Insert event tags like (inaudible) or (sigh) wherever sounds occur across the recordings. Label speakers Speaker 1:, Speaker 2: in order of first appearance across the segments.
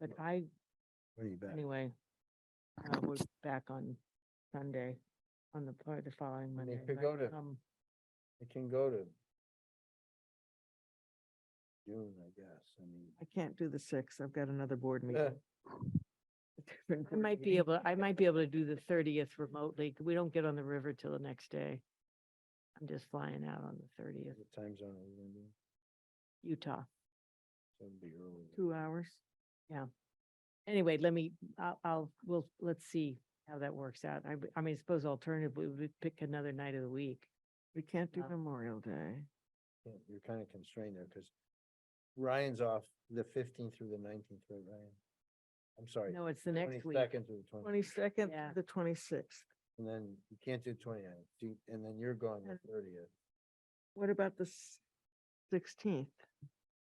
Speaker 1: but I,
Speaker 2: What do you bet?
Speaker 1: anyway, uh, (laughs) we're back on Sunday, on the, part the following
Speaker 3: And
Speaker 1: Monday.
Speaker 3: they
Speaker 1: but,
Speaker 3: could go to-
Speaker 1: (laughs) um,
Speaker 3: It can go to
Speaker 2: June, I guess, I mean.
Speaker 4: I can't do the sixth. I've got another board
Speaker 3: Uh,
Speaker 4: meeting. A different
Speaker 1: I
Speaker 4: board
Speaker 1: might be
Speaker 4: meeting.
Speaker 1: able, I might be able to do the thirtieth remotely. 'cause We don't get on the river till the next day. I'm just flying out on the thirtieth,
Speaker 3: the time zone, are you gonna do?
Speaker 1: Utah.
Speaker 3: so it'd be early.
Speaker 4: Two hours.
Speaker 1: Anyway, let me, I'll, I'll, we'll, let's see how that works out. I, w- I mean, suppose alternatively, we pick another night of the week.
Speaker 4: We can't do
Speaker 1: Uh,
Speaker 4: Memorial Day.
Speaker 3: Yeah, You're kind of constrained there because Ryan's off the fifteenth through the nineteenth, right, Ryan? I'm sorry.
Speaker 1: No, it's the next week.
Speaker 3: Second through the twentieth,
Speaker 4: Twenty-second,
Speaker 1: Yeah.
Speaker 4: the twenty-sixth.
Speaker 3: and then you can't do twenty-ninth, and then you're going the
Speaker 4: Uh,
Speaker 3: thirtieth.
Speaker 4: What about the sixteenth?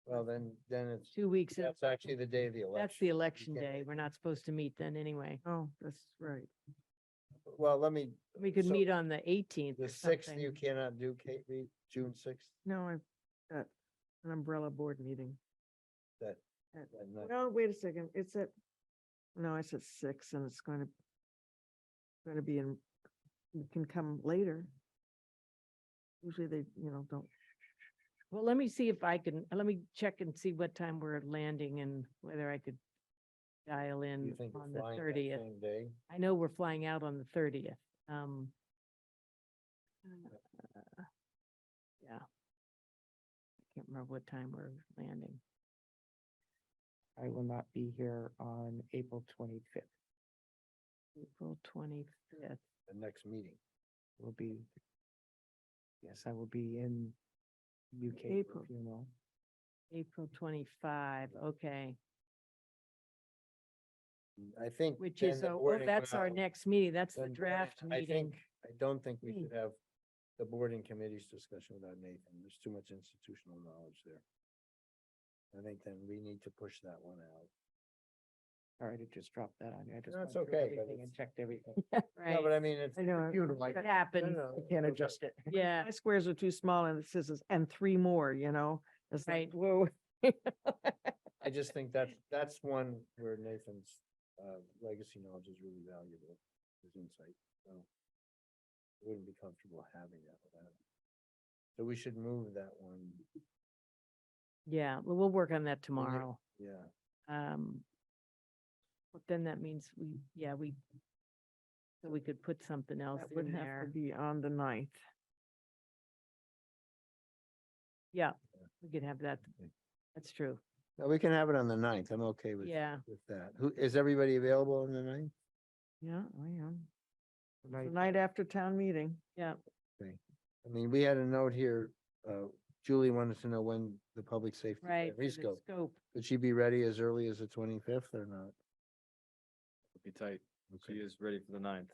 Speaker 3: Well, then, then it's,
Speaker 1: Two weeks, of-
Speaker 3: that's actually the day of the election.
Speaker 1: that's the
Speaker 3: You
Speaker 1: election
Speaker 3: can't
Speaker 1: day.
Speaker 3: make
Speaker 1: We're
Speaker 3: it.
Speaker 1: not supposed to meet then anyway.
Speaker 4: Oh, that's right.
Speaker 3: Well, let me.
Speaker 1: We could
Speaker 3: so
Speaker 1: meet on the eighteenth
Speaker 3: The sixth, you cannot do, Kate, Reed, June sixth,
Speaker 4: No, I've got an umbrella board meeting.
Speaker 3: and then
Speaker 4: No, wait a second. It's at, no, it's at six and it's going to, going to be in, we can come later. Usually they, you know, don't,
Speaker 1: Well, let me see if I can, let me check and see what time we're landing and whether I could dial
Speaker 3: you
Speaker 1: in
Speaker 3: think
Speaker 1: on
Speaker 3: of
Speaker 1: the
Speaker 3: flying that
Speaker 1: thirtieth.
Speaker 3: same day.
Speaker 1: I know we're flying out on the thirtieth. Um. uh, Yeah. I Can't remember what time we're landing.
Speaker 5: I will not be here on April twenty-fifth.
Speaker 1: April twenty-fifth.
Speaker 3: the next meeting.
Speaker 5: Will be. Yes, I will be in UK for
Speaker 4: April.
Speaker 5: a funeral.
Speaker 1: April twenty-five, okay,
Speaker 3: I think.
Speaker 1: which
Speaker 3: then
Speaker 1: is,
Speaker 3: the
Speaker 4: uh,
Speaker 1: oh, oh,
Speaker 3: boarding
Speaker 1: that's our
Speaker 3: will-
Speaker 1: next meeting, that's the
Speaker 3: then boarding-
Speaker 1: draft
Speaker 3: I
Speaker 1: meeting. Hmm.
Speaker 3: think, I don't think we should have the board and committees discussion without Nathan. There's too much institutional knowledge there. I think then we need to push that one out.
Speaker 5: Sorry to just drop that on you. I just.
Speaker 3: That's
Speaker 5: went through
Speaker 3: okay, but
Speaker 5: everything And
Speaker 3: (laughs) it's-
Speaker 5: checked everything.
Speaker 3: No,
Speaker 1: Right,
Speaker 3: but I mean, it's.
Speaker 4: I know.
Speaker 3: Funeral.
Speaker 1: it happens,
Speaker 4: (laughs)
Speaker 5: I can't adjust it.
Speaker 1: yeah,
Speaker 3: (laughs)
Speaker 4: my squares are too small and it says, it's- and three more, you know? It's like,
Speaker 1: Right.
Speaker 4: whoa.
Speaker 3: I just think that's, that's one where Nathan's, uh, legacy knowledge is really valuable, his insight, so. I Wouldn't be comfortable having that without him. So we should move that one,
Speaker 1: yeah, well, we'll work on that tomorrow.
Speaker 3: yeah.
Speaker 1: Um. But then that means we, yeah, we, so we could put something else
Speaker 4: That would
Speaker 1: in
Speaker 4: have to
Speaker 1: there.
Speaker 4: be on the ninth.
Speaker 1: Yeah, we could have that,
Speaker 3: Okay.
Speaker 1: that's true,
Speaker 3: No, we can have it on the ninth, I'm okay with,
Speaker 1: yeah.
Speaker 3: with that. Who, is everybody available on the ninth?
Speaker 4: Yeah, I am. The night after town meeting.
Speaker 3: I mean, we had a note here, uh, Julie wanted to know when the public safety.
Speaker 1: Right. for the
Speaker 3: Rescope,
Speaker 1: Scope,
Speaker 3: could she be ready as early as the twenty-fifth or not?
Speaker 6: Be tight. She
Speaker 3: Okay,
Speaker 6: is ready for the ninth.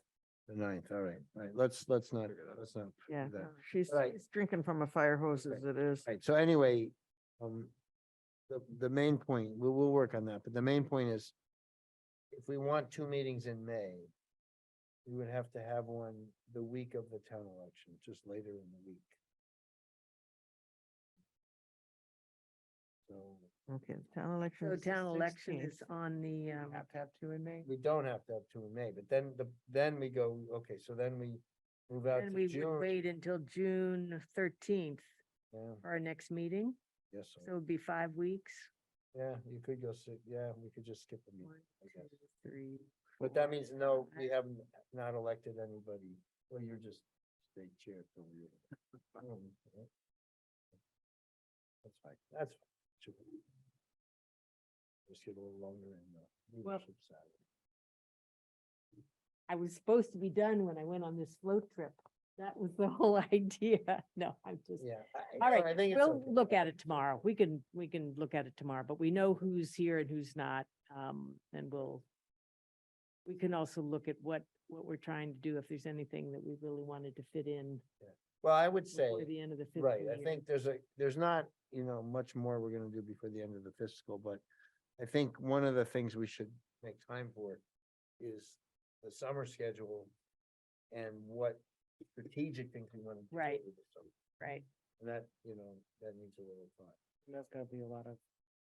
Speaker 3: The ninth, all right, all right, let's, let's not,
Speaker 6: Figure that out.
Speaker 3: let's not.
Speaker 4: Yeah,
Speaker 3: do that.
Speaker 4: no, she's,
Speaker 3: Right.
Speaker 4: she's drinking from a fire hose
Speaker 3: Okay.
Speaker 4: as it is.
Speaker 3: Right, so anyway, um, the, the main point, we'll, we'll work on that, but the main point is if we want two meetings in May, we would have to have one the week of the town election, just later in the week. So
Speaker 4: Okay, town election.
Speaker 1: so
Speaker 4: is the
Speaker 1: town election
Speaker 4: 16th.
Speaker 1: is on the, um,
Speaker 5: Have to have two in May.
Speaker 3: we don't have to have two in May, but then the, then we go, okay, so then we move out
Speaker 1: and
Speaker 3: to
Speaker 1: we would
Speaker 3: June.
Speaker 1: wait until June thirteenth
Speaker 3: Yeah,
Speaker 1: for our next meeting,
Speaker 3: yes,
Speaker 1: so it'd be five weeks.
Speaker 3: yeah, you could go, si- yeah, we could just skip a meeting,
Speaker 1: One,
Speaker 3: I guess.
Speaker 1: two, three,
Speaker 3: But that means no,
Speaker 1: I-
Speaker 3: we haven't, not elected anybody, well, you're just state chair for you. That's fine, that's. fine. Sure. Just get a little longer in the
Speaker 1: Well-
Speaker 3: leadership side.
Speaker 1: I was supposed to be done when I went on this float trip. That was the (laughs) whole idea. No, I'm just,
Speaker 3: Yeah.
Speaker 1: All right,
Speaker 3: we'll
Speaker 1: we'll look at it tomorrow. We can, we can look at it tomorrow, but we know who's here and who's not. Um, and we'll, we can also look at what, what we're trying to do, if there's anything that we really wanted to fit in
Speaker 3: Well, I would say,
Speaker 1: before the end of the fiscal
Speaker 3: right,
Speaker 1: year.
Speaker 3: I think there's a, there's not, you know, much more we're gonna do before the end of the fiscal, but I think one of the things we should make time for is the summer schedule and what strategic things we wanna do.
Speaker 1: Right.
Speaker 3: over the summer.
Speaker 1: Right,
Speaker 3: And that, you know, that needs a little thought.
Speaker 5: There's gonna be a lot of